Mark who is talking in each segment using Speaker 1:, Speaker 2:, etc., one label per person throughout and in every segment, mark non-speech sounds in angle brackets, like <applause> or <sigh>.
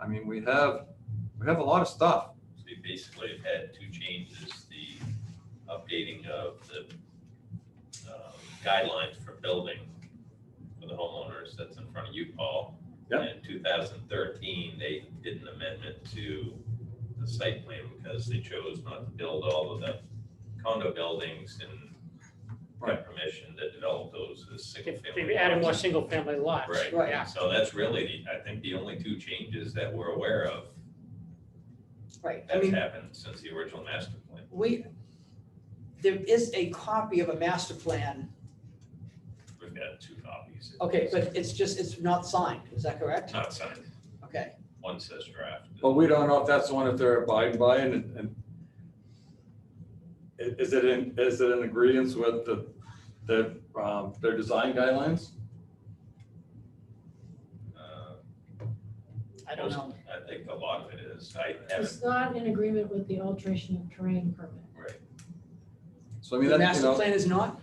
Speaker 1: I mean, we have, we have a lot of stuff.
Speaker 2: So we basically have had two changes, the updating of the uh, guidelines for building for the homeowners that's in front of you, Paul.
Speaker 1: Yep.
Speaker 2: And In two thousand thirteen, they did an amendment to the site plan because they chose not to build all of the condo buildings and
Speaker 1: Right.
Speaker 2: got permission to develop those as single
Speaker 3: If
Speaker 2: family.
Speaker 3: They've added more
Speaker 2: houses.
Speaker 3: single-family lots.
Speaker 2: Right.
Speaker 4: Right.
Speaker 3: Yeah.
Speaker 2: So that's really, the- I think, the only two changes that we're aware of
Speaker 4: Right, I
Speaker 2: that's
Speaker 4: mean,
Speaker 2: happened since the original master plan.
Speaker 4: we, there is a copy of a master plan,
Speaker 2: We've got two copies.
Speaker 4: okay, but it's just, it's not signed, is that correct?
Speaker 2: It's Not signed.
Speaker 4: Okay,
Speaker 2: One says draft.
Speaker 1: But we don't know if that's the one that they're abiding by and, and i- is it in, is it in agreeance with the, the, um, their design guidelines?
Speaker 2: Uh,
Speaker 4: I don't know.
Speaker 2: I think a lot of it is. I haven't,
Speaker 5: It's not in agreement with the alteration of terrain permit.
Speaker 2: right.
Speaker 1: So I mean,
Speaker 4: The
Speaker 1: that's, you
Speaker 4: master
Speaker 1: know,
Speaker 4: plan is not,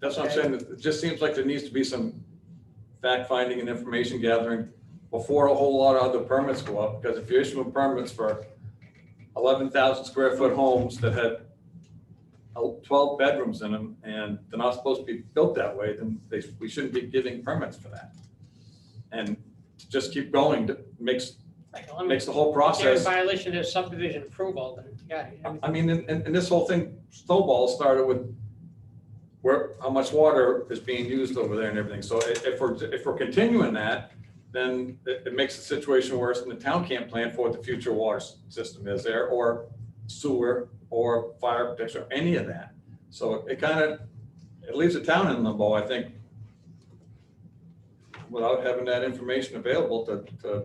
Speaker 1: that's what I'm saying. It just seems like there needs to be some fact finding and information gathering before a whole lot of other permits go up, because if you're issuing permits for eleven thousand square foot homes that had el- twelve bedrooms in them and they're not supposed to be built that way, then they, we shouldn't be giving permits for that. And to just keep going to- makes,
Speaker 3: Like, well, I mean,
Speaker 1: makes the whole
Speaker 3: if They're in
Speaker 1: process.
Speaker 3: violation of subdivision approval, then, yeah. I mean,
Speaker 1: I mean, and, and and this whole thing snowball started with where, how much water is being used over there and everything. So i- if we're, if we're continuing that, then it, it makes the situation worse and the town can't plan for what the future water s- system is there or sewer or fire protection or any of that. So it kind of, it leaves the town in limbo, I think, without having that information available to, to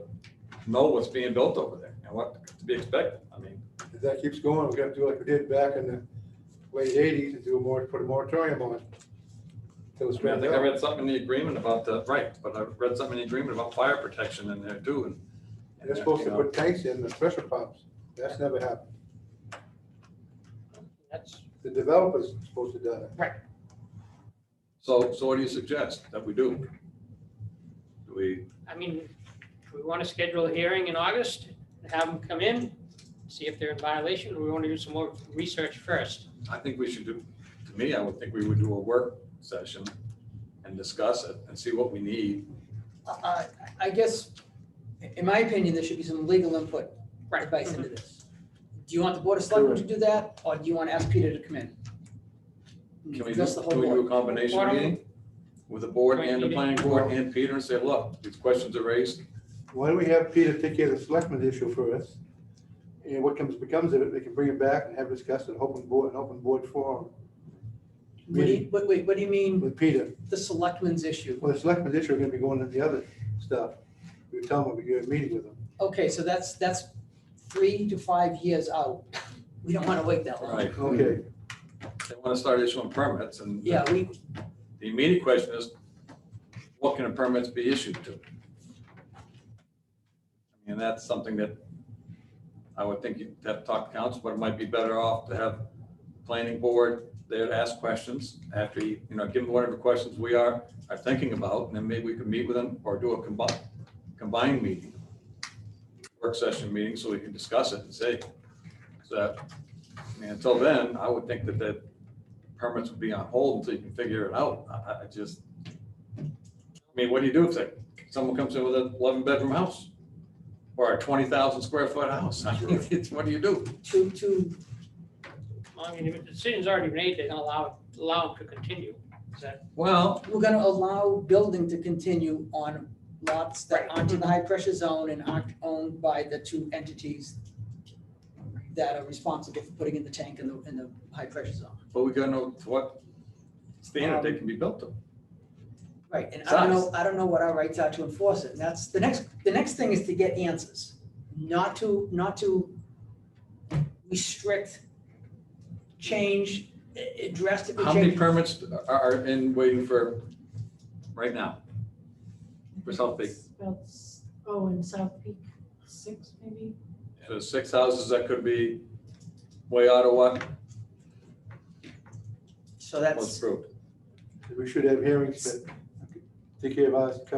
Speaker 1: know what's being built over there and what to be expected. I mean,
Speaker 6: If that keeps going, we're gonna do like we did back in the late eighties and do a more, put a moratorium on it. Till it's
Speaker 1: I mean, I
Speaker 6: ramped
Speaker 1: think I
Speaker 6: up.
Speaker 1: read something in the agreement about the, right, but I read something in the agreement about fire protection in there too. and- and
Speaker 6: They're supposed
Speaker 1: you
Speaker 6: to
Speaker 1: know,
Speaker 6: put tanks in, the pressure pumps. That's never happened.
Speaker 3: That's,
Speaker 6: The developer's supposed to do that.
Speaker 1: So, so what do you suggest that we do? Do we,
Speaker 3: I mean, do we want to schedule a hearing in August, and have them come in, see if they're in violation, or we want to do some more research first?
Speaker 1: I think we should do, to me, I would think we would do a work session and discuss it and see what we need.
Speaker 4: I, Uh, I guess, in my opinion, there should be some legal input,
Speaker 3: Right.
Speaker 4: advice into this. Do you want the board of selectmen to do that, or do you want to ask Peter to come in?
Speaker 1: Can we, do
Speaker 4: That's the whole
Speaker 1: can we
Speaker 4: board.
Speaker 1: do a combination
Speaker 3: Why don't we-
Speaker 1: meeting with the board
Speaker 3: Joint
Speaker 1: and the
Speaker 3: meeting.
Speaker 1: planning board and Peter and say, look, these questions are raised.
Speaker 6: Why don't we have Peter take care of the selectmen's issue first? And what comes, becomes of it, they can bring it back and have it discussed at open board, an open board forum
Speaker 4: What do you, wait, wait, what do you mean,
Speaker 6: with Peter.
Speaker 4: the selectmen's issue?
Speaker 6: Well, the selectmen's issue are gonna be going to the other stuff. We tell them, we're gonna meeting with them.
Speaker 4: Okay, so that's, that's three to five years out. We don't want to wait that long.
Speaker 1: Right.
Speaker 6: Okay.
Speaker 1: They want to start issuing permits and
Speaker 4: Yeah, we,
Speaker 1: the immediate question is, what can a permits be issued to? And that's something that I would think you'd have to talk to council, but it might be better off to have planning board there to ask questions after, you you know, give them whatever questions we are, are thinking about, and then maybe we could meet with them or do a combined, combined meeting, work session meeting, so we can discuss it and say, so, I mean, until then, I would think that the permits would be on hold until you can figure it out. I- I, I just, I mean, what do you do if they- someone comes in with an eleven bedroom house? Or a twenty thousand square foot house? <laughs> I mean, it's- What do you do?
Speaker 4: two, two,
Speaker 3: I mean, if the decision's already made, they're going to allow, it- allow them to continue. Is that,
Speaker 1: Well,
Speaker 4: we're going to allow building to continue on lots that aren't in the high pressure zone and aren't owned by the two entities that are responsible for putting in the tank in the, in the high pressure zone.
Speaker 1: but we gotta know to what standard they can be built to.
Speaker 4: Right, and I don't know, I don't know what our rights are to enforce it, and that's, the next, the next thing is to get answers, not to, not to restrict, change, eh, drastically
Speaker 1: How
Speaker 4: change.
Speaker 1: many permits are, are in waiting for right now? For South Peak.
Speaker 5: About s- oh, in South Peak, six maybe?
Speaker 1: So six houses that could be way out of what
Speaker 4: So
Speaker 1: was
Speaker 4: that's.
Speaker 1: approved.
Speaker 6: We should have hearings that take care of us,